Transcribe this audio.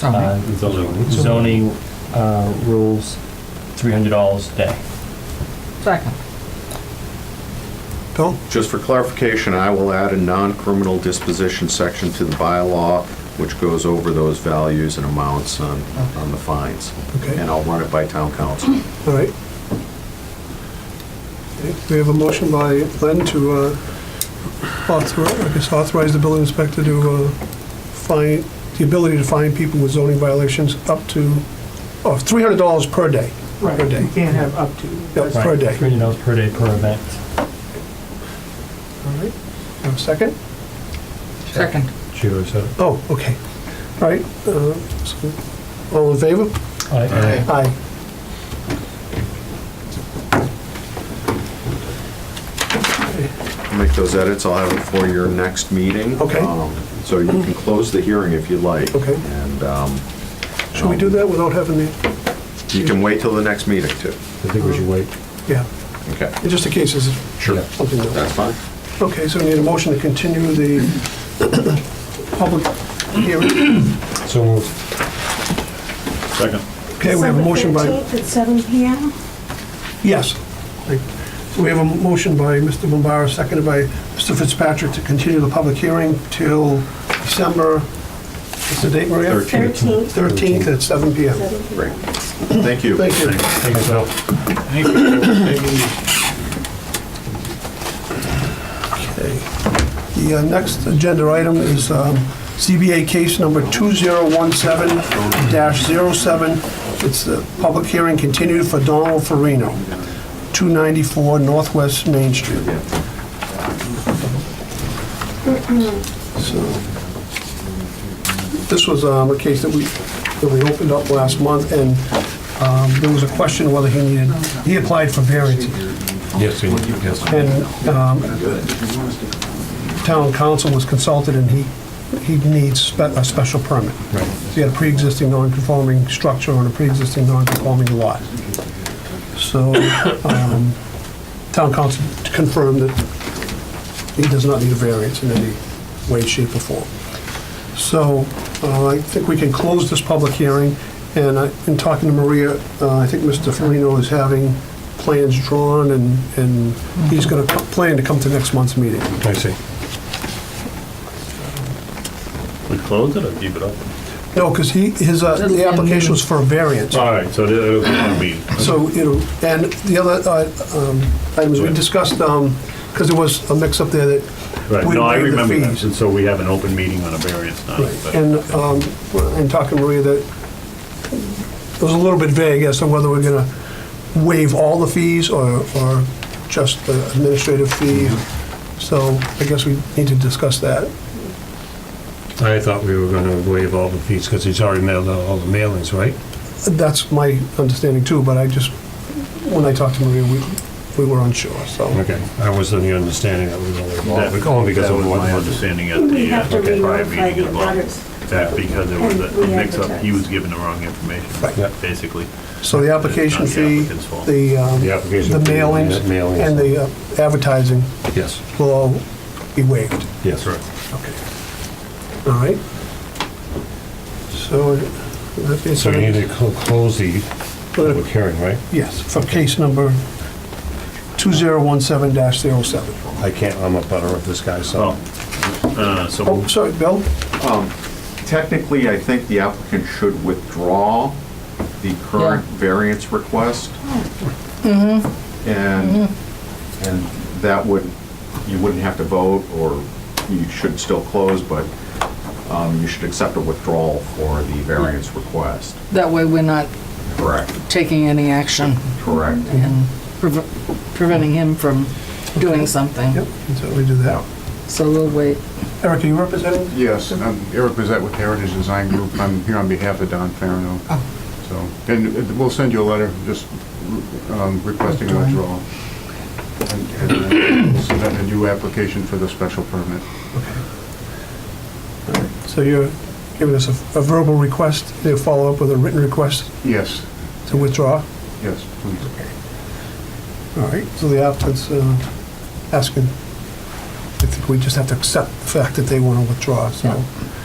Zoning. uh, zoning uh, rules, $300 a day. Second. Bill? Just for clarification, I will add a non-criminal disposition section to the bylaw, which goes over those values and amounts on, on the fines. Okay. And I'll run it by town council. All right. Okay, We have a motion by Len to uh, author- I guess authorize the building inspector to uh, find, the ability to fine people with zoning violations up to, oh, of $300 per day. Right, Per day. you can't have up to. Yep. Per That's- Right, day. $300 per day per event. All right, have a second? Second. Chair said it. Oh, okay. All right, uh, so, all in favor? All right. Aye. Make those edits, I'll have it for your next meeting. Okay. Um, So you can close the hearing if you like. Okay. And um, Should we do that without having the, you can wait till the next meeting too. I think we should wait. yeah, Okay. just in case it's Sure. something else. That's fine. Okay, so we need a motion to continue the public hearing. So moved. Second. Okay, we have a motion by, December 15th at 7 PM? yes. So we have a motion by Mr. Bombara, seconded by Mr. Fitzpatrick to continue the public hearing till December, what's the date, Maria? 13th. 13th at 7 PM. 7 Great. PM. Thank you. Thank you. Thank you, Bill. Okay. The uh, next agenda item is um, CBA case number 2017-07. It's the public hearing continued for Donald Farino, 294 Northwest Main Street. So, This was um, a case that we, that we opened up last month, and um, there was a question whether he needed, he applied for variance. Yes, yes. And um, town council was consulted, and he, he needs spe- a special permit. Right. He had a pre-existing non-conforming structure on a pre-existing non-conforming lot. So um, town council confirmed that he does not need a variance in any way, shape, or form. So uh, I think we can close this public hearing, and I- in talking to Maria, uh, I think Mr. Farino is having plans drawn, and and he's going to plan to come to next month's meeting. I see. We close it or keep it open? No, because he, his, uh, the application was for a variance. All right, so it'll be one meeting. So, you know, and the other uh, um, items we discussed, because there was a mix-up there that Right, we no, I waived the remember that, fees. and so we have an open meeting on a variance night. but- And um, in talking to Maria, that it was a little bit vague as to whether we're going to waive all the fees or, or just the administrative fee. Mm-hmm. So I guess we need to discuss that. I thought we were gonna waive all the fees, because he's already mailed out all the mailings, right? That's my understanding too, but I just, when I talked to Maria, we, we were unsure, so. Okay, I was of the understanding that we were gonna waive all, That but only because that of was my one. understanding at We the have to uh, prior re-notify meeting the as well, abutters. that because there was And we a mix-up, he advertise. was given the wrong information, Right. basically. So the application Not the fee, applicant's fault. the, um, The application the fee, mailings, the mailings. and the uh, advertising Yes, will all be waived. yes. Okay. All right. So, that is, So we need to cl- close the public hearing, right? yes, for case number 2017-07. I can't, I'm a butter of this guy, so. Oh, uh, so Oh, sorry, Bill? Technically, I think the applicant should withdraw the current variance request. And, and that would, you wouldn't have to vote, or you should still close, but um, you should accept a withdrawal for the variance request. That way we're not Correct. taking any action, Correct. preve- preventing him from doing something. Yep, can certainly do that. So we'll wait. Eric, are you representing? Yes, I'm Eric Bezette with Heritage Design Group. I'm here on behalf of Don Farino. So, and it- we'll send you a letter just um, requesting a withdrawal. And- and We'll submit a new application for the special permit. So you're giving us a a verbal request, they'll follow up with a written request Yes, to withdraw? yes, please. All right, so the applicant's uh, asking, I think we just have to accept the fact that they want to withdraw, so. Yeah. All